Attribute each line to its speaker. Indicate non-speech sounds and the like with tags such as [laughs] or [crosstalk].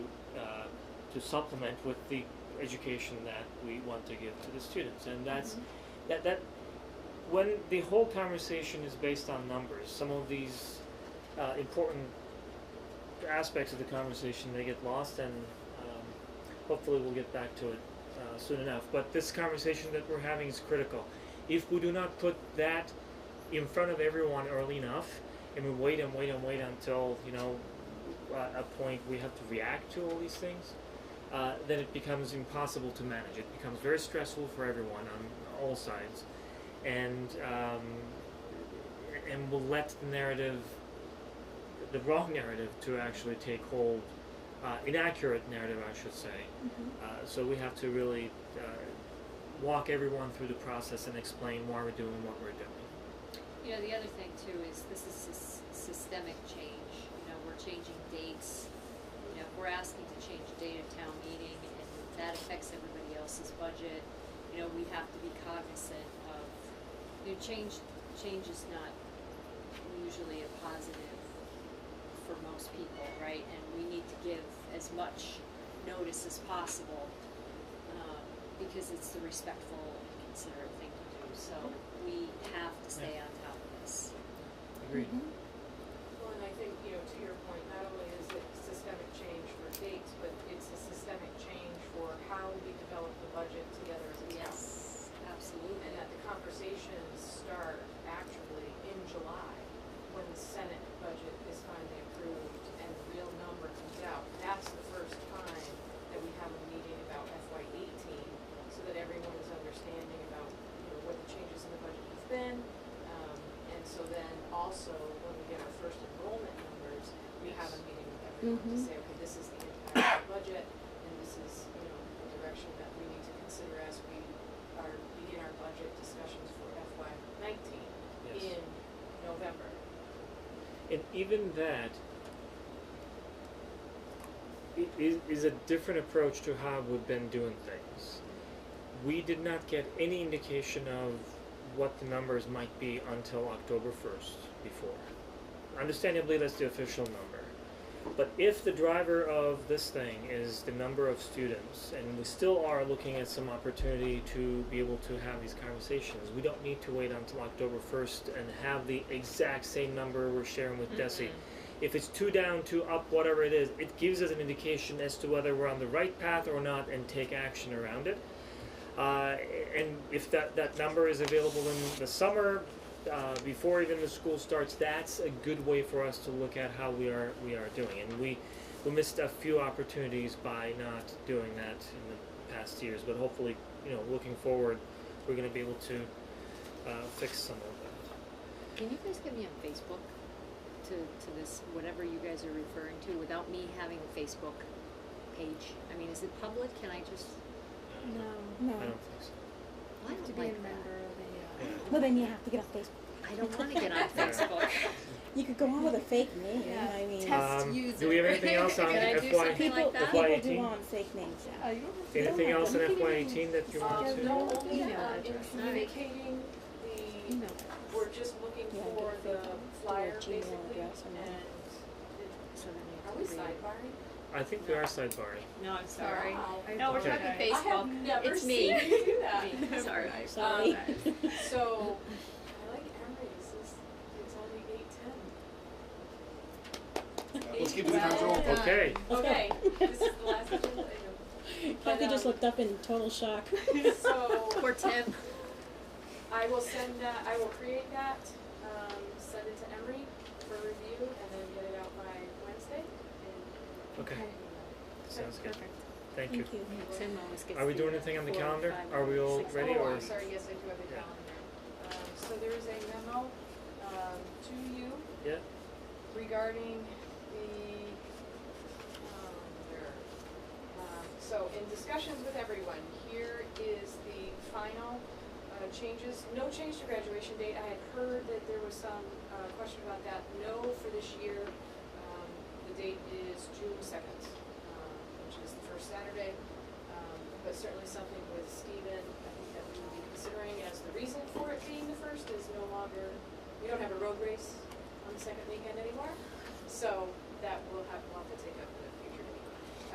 Speaker 1: uh, to supplement with the education that we want to give to the students. And that's that that when the whole conversation is based on numbers, some of these uh, important aspects of the conversation they get lost, and um, hopefully we'll get back to it uh, soon enough. But this conversation that we're having is critical. If we do not put that in front of everyone early enough, and we wait and wait and wait until you know uh, a point we have to react to all these things, uh, then it becomes impossible to manage. It becomes very stressful for everyone on all sides, and um, and will let the narrative, the wrong narrative, to actually take hold. Uh, inaccurate narrative, I should say. Uh, so we have to really uh, walk everyone through the process and explain why we're doing what we're doing.
Speaker 2: You know, the other thing too is this is sys- systemic change. You know, we're changing dates. You know, we're asking to change the date of town meeting, and that affects everybody else's budget. You know, we have to be cognizant of, you know, change, change is not usually a positive for most people, right? And we need to give as much notice as possible, um, because it's the respectful and considerate thing to do. So we have to stay on top of this.
Speaker 1: Agreed.
Speaker 3: Well, and I think, you know, to your point, not only is it systemic change for dates, but it's a systemic change for how we develop the budget together as a town.
Speaker 2: Yes, uh, absolutely.
Speaker 3: And that the conversations start actually in July, when the Senate budget is finally approved and the real number comes out. That's the first time that we have a meeting about FY eighteen, so that everyone is understanding about, you know, what the changes in the budget have been. Um, and so then also, when we get our first enrollment numbers, we have a meeting with everyone to
Speaker 4: Mhm.
Speaker 3: say, okay, this is the impact of the budget, and this is, you know, the direction that we need to consider as we are, begin our budget discussions for FY nineteen
Speaker 1: Yes.
Speaker 3: in November.
Speaker 1: And even that i- is, is a different approach to how we've been doing things. We did not get any indication of what the numbers might be until October 1st before. Understandably, that's the official number. But if the driver of this thing is the number of students, and we still are looking at some opportunity to be able to have these conversations, we don't need to wait until October 1st and have the exact same number we're sharing with Desi. If it's two down, two up, whatever it is, it gives us an indication as to whether we're on the right path or not and take action around it. Uh, and if that, that number is available in the summer, uh, before even the school starts, that's a good way for us to look at how we are, we are doing. And we, we missed a few opportunities by not doing that in the past years, but hopefully, you know, looking forward, we're gonna be able to, uh, fix some of
Speaker 2: Can you guys get me on Facebook to, to this, whatever you guys are referring to, without me having a Facebook page? I mean, is it public? Can I just,
Speaker 1: that.
Speaker 4: No.
Speaker 1: I
Speaker 5: No,
Speaker 1: don't think so.
Speaker 2: I
Speaker 5: you have to
Speaker 2: don't
Speaker 5: be
Speaker 2: like
Speaker 5: a member
Speaker 2: [laughs] that.
Speaker 5: of a,
Speaker 1: Yeah.
Speaker 5: uh, well, then you have to get off Facebook.
Speaker 2: I don't wanna [laughs] get on Facebook.
Speaker 5: You could go on with a fake name,
Speaker 4: Yeah.
Speaker 5: I mean.
Speaker 4: Test
Speaker 1: Um, do we have
Speaker 4: user.
Speaker 1: anything else on
Speaker 2: Can I do
Speaker 1: FY?
Speaker 2: something like
Speaker 5: People,
Speaker 2: that?
Speaker 1: FY18?
Speaker 5: people do want fake names, yeah.
Speaker 1: Anything
Speaker 5: Yeah.
Speaker 1: else in
Speaker 5: You can
Speaker 1: FY
Speaker 5: even-
Speaker 1: eighteen that you want
Speaker 3: Um,
Speaker 1: to?
Speaker 3: no, only,
Speaker 5: email
Speaker 3: uh, in
Speaker 5: address.
Speaker 3: communicating the,
Speaker 5: Email.
Speaker 3: we're just looking
Speaker 5: Yeah,
Speaker 3: for
Speaker 5: get a
Speaker 3: the
Speaker 5: fake
Speaker 3: flyer
Speaker 5: Gmail
Speaker 3: basically,
Speaker 5: address and
Speaker 3: and,
Speaker 5: then-
Speaker 3: it-
Speaker 2: So then I
Speaker 3: are
Speaker 2: have
Speaker 3: we
Speaker 2: to read.
Speaker 3: sidebarring?
Speaker 1: I think we are sidebarring.
Speaker 6: No, I'm sorry.
Speaker 3: Wow.
Speaker 6: No, we're
Speaker 1: Okay.
Speaker 6: talking
Speaker 3: I have
Speaker 6: Facebook.
Speaker 3: never
Speaker 2: It's
Speaker 3: seen
Speaker 2: me.
Speaker 3: you do that.
Speaker 2: [laughs] Me, Sorry.
Speaker 5: Sorry.
Speaker 3: So, I like Emery's, it's, it's only eight ten.
Speaker 7: Let's keep it in control.
Speaker 6: Done.
Speaker 1: Okay,
Speaker 5: Let's go.
Speaker 3: Okay, [laughs] this is the last agenda item. But,
Speaker 5: [laughs] Kathy just
Speaker 3: um,
Speaker 5: looked up in total shock.
Speaker 3: So,
Speaker 2: Poor Tim.
Speaker 3: I will send that, I will create that, um, send it to Emery for review, and then get it out by Wednesday, and.
Speaker 1: Okay. sounds good.
Speaker 6: Perfect.
Speaker 1: Thank you.
Speaker 5: Thank you.
Speaker 2: Tim always gets
Speaker 1: Are we
Speaker 2: the,
Speaker 1: doing
Speaker 2: uh,
Speaker 1: anything on the
Speaker 2: four,
Speaker 1: calendar?
Speaker 2: five,
Speaker 1: Are we all
Speaker 2: six.
Speaker 1: ready
Speaker 3: Oh,
Speaker 1: or-
Speaker 3: I'm sorry, yes, I do have the
Speaker 1: Yeah.
Speaker 3: calendar. Um, so there is a memo, um, to you
Speaker 1: Yeah,
Speaker 3: regarding the, um, there. Um, so in discussions with everyone, here is the final, uh, changes, no change to graduation date, I had heard that there was some, uh, question about that, no for this year. Um, the date is June second, um, which is the first Saturday, um, but certainly something with Stephen, I think that we would be considering as the reason for it being the first is no longer, we don't have a road race on the second weekend anymore, so that will have, we'll have to take